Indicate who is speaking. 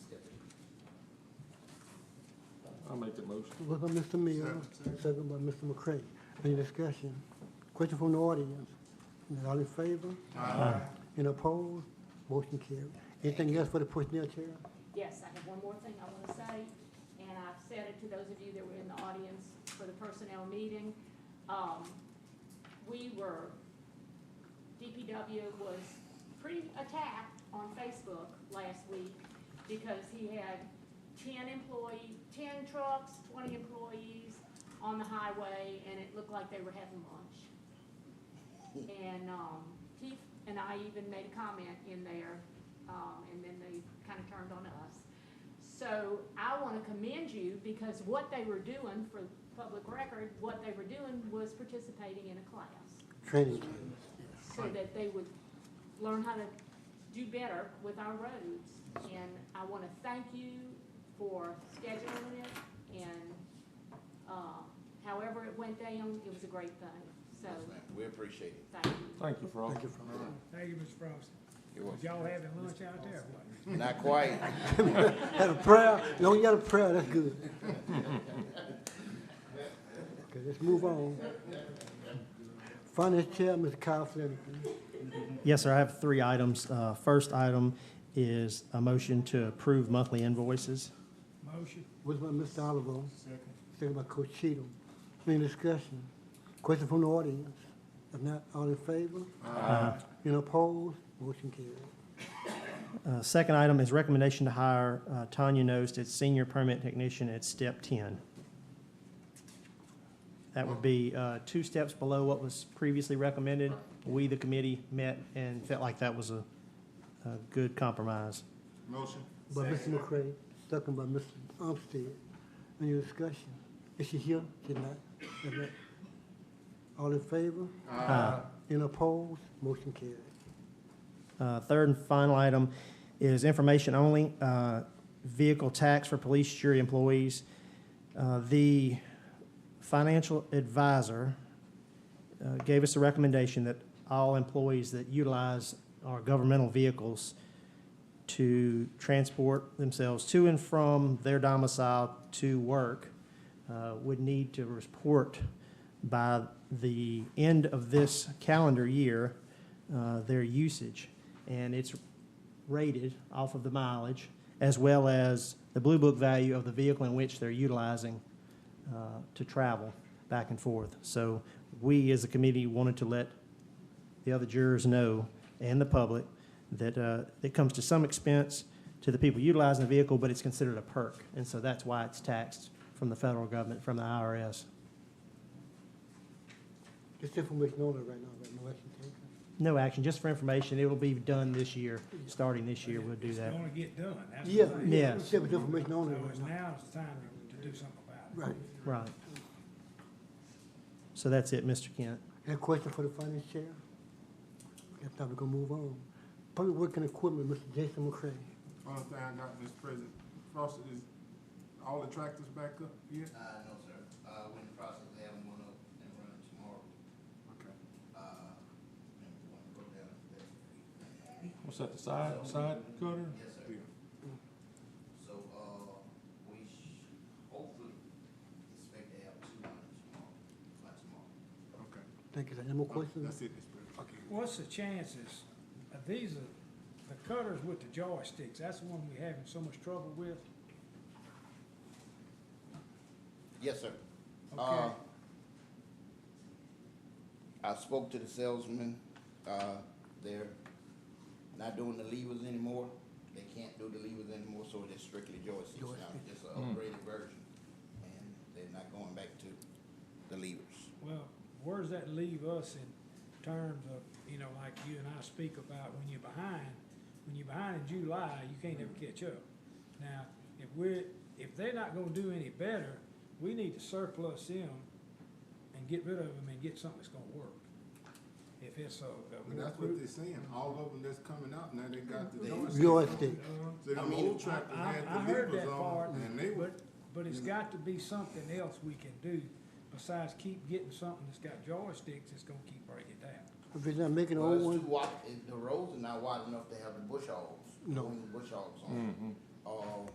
Speaker 1: make the motion.
Speaker 2: Motion by Mr. Mills, second by Mr. McCray. Any discussion? Question from the audience? Is All in favor? Aye. Any opposed? Motion carried. Anything else for the personnel chair?
Speaker 3: Yes, I have one more thing I want to say, and I've said it to those of you that were in the audience for the personnel meeting. Um, We were, DPW was pretty attacked on Facebook last week because he had ten employee, ten trucks, twenty employees on the highway, and it looked like they were having lunch. And, um, Keith and I even made a comment in there, um, and then they kind of turned on us. So I want to commend you because what they were doing for public record, what they were doing was participating in a class.
Speaker 2: Training team.
Speaker 3: So that they would learn how to do better with our roads. And I want to thank you for scheduling it and, um, however it went down, it was a great thing. So,
Speaker 4: We appreciate it.
Speaker 3: thank you.
Speaker 1: Thank you, Frog.
Speaker 2: Thank you for that.
Speaker 5: Thank you, Mr. Frost.
Speaker 4: You're
Speaker 5: Was
Speaker 4: welcome.
Speaker 5: y'all having lunch out there? or what?
Speaker 4: Not quite.
Speaker 2: Had a prayer? As long as you had a prayer, that's good. Okay, let's move on. Finance Chair, Mr. Kyle Flanagan.
Speaker 6: Yes, sir, I have three items. Uh, First item is a motion to approve monthly invoices.
Speaker 5: Motion,
Speaker 2: Motion by Mr. Oliver. Second. Second by Coach Cheatham. Any discussion? Question from the audience? If not, all in favor? Aye. Any opposed? Motion carried.
Speaker 6: Uh, Second item is recommendation to hire uh, Tanya Nost as senior permit technician at step 10. That would be uh, two steps below what was previously recommended. We, the committee, met and felt like that was a a good compromise.
Speaker 1: Motion.
Speaker 2: By Mr. McCray, second by Mr. Armstead. Any discussion? Is she here? She not? If not, All in favor?
Speaker 6: Aye.
Speaker 2: Any opposed? Motion carried.
Speaker 6: Uh, Third and final item is information only, uh, vehicle tax for police jury employees. Uh, The financial advisor uh, gave us a recommendation that all employees that utilize our governmental vehicles to transport themselves to and from their domicile to work uh, would need to report by the end of this calendar year uh, their usage. And it's rated off of the mileage as well as the Blue Book value of the vehicle in which they're utilizing uh, to travel back and forth. So we, as a committee, wanted to let the other jurors know and the public that uh, it comes to some expense to the people utilizing the vehicle, but it's considered a perk. And so that's why it's taxed from the federal government, from the IRS.
Speaker 2: This information only right now, right? No action taken.
Speaker 6: No action, just for information. It will be done this year, starting this year, we'll do
Speaker 5: it's
Speaker 6: that.
Speaker 5: gonna get done, that's the
Speaker 2: Yeah.
Speaker 5: thing.
Speaker 6: Yeah.
Speaker 2: Yeah, but information
Speaker 5: So
Speaker 2: only
Speaker 5: it's
Speaker 2: right now.
Speaker 5: now it's time to, to do something about it.
Speaker 2: Right.
Speaker 6: Right. So that's it, Mr. Kent.
Speaker 2: Any question for the finance chair? If not, we're gonna move on. Public Working Equipment, Mr. Jason McCray.
Speaker 7: Only thing I got, Mr. President, Frost, is all the tractors back up yet?
Speaker 4: Uh, no, sir. Uh, we're in the process of having one up and running tomorrow.
Speaker 7: Okay.
Speaker 4: Uh, and we're gonna go down there.
Speaker 1: What's that, the side, side cutter?
Speaker 4: Yes, sir. So, uh, we sh- hopefully expect to have two hundred tomorrow, by tomorrow.
Speaker 7: Okay.
Speaker 2: Thank you. sir. Any more
Speaker 7: That's
Speaker 2: questions?
Speaker 7: it, Mr. President. Okay.
Speaker 5: What's the chances, uh, these are, the cutters with the joysticks, that's the one we having so much trouble with?
Speaker 4: Yes, sir. Uh,
Speaker 5: Okay.
Speaker 4: I spoke to the salesman, uh, they're not doing the levers anymore. They can't do the levers anymore, so it is strictly joysticks now, just an upgraded version. And they're not going back to the levers.
Speaker 5: Well, where does that leave us in terms of, you know, like you and I speak about when you're behind, when you're behind in July, you can't ever catch up. Now, if we're, if they're not gonna do any better, we need to surplus them and get rid of them and get something that's gonna work. If it's a.
Speaker 7: But that's what they're saying, all of them that's coming out, now they got the
Speaker 4: They-
Speaker 7: joysticks.
Speaker 2: Joystick.
Speaker 7: So
Speaker 4: I
Speaker 7: them
Speaker 4: mean,
Speaker 7: old tractors
Speaker 5: I, I
Speaker 7: had the
Speaker 5: heard
Speaker 7: levers
Speaker 5: that part,
Speaker 7: on, and they were,
Speaker 5: but, but it's
Speaker 7: you know.
Speaker 5: got to be something else we can do besides keep getting something that's got joysticks that's gonna keep breaking down.
Speaker 2: If it's not making
Speaker 4: Well,
Speaker 2: old
Speaker 4: it's
Speaker 2: ones,
Speaker 4: too wide, it- the roads are not wide enough to have the bush hogs,
Speaker 2: No.
Speaker 4: the bush hogs on. Uh,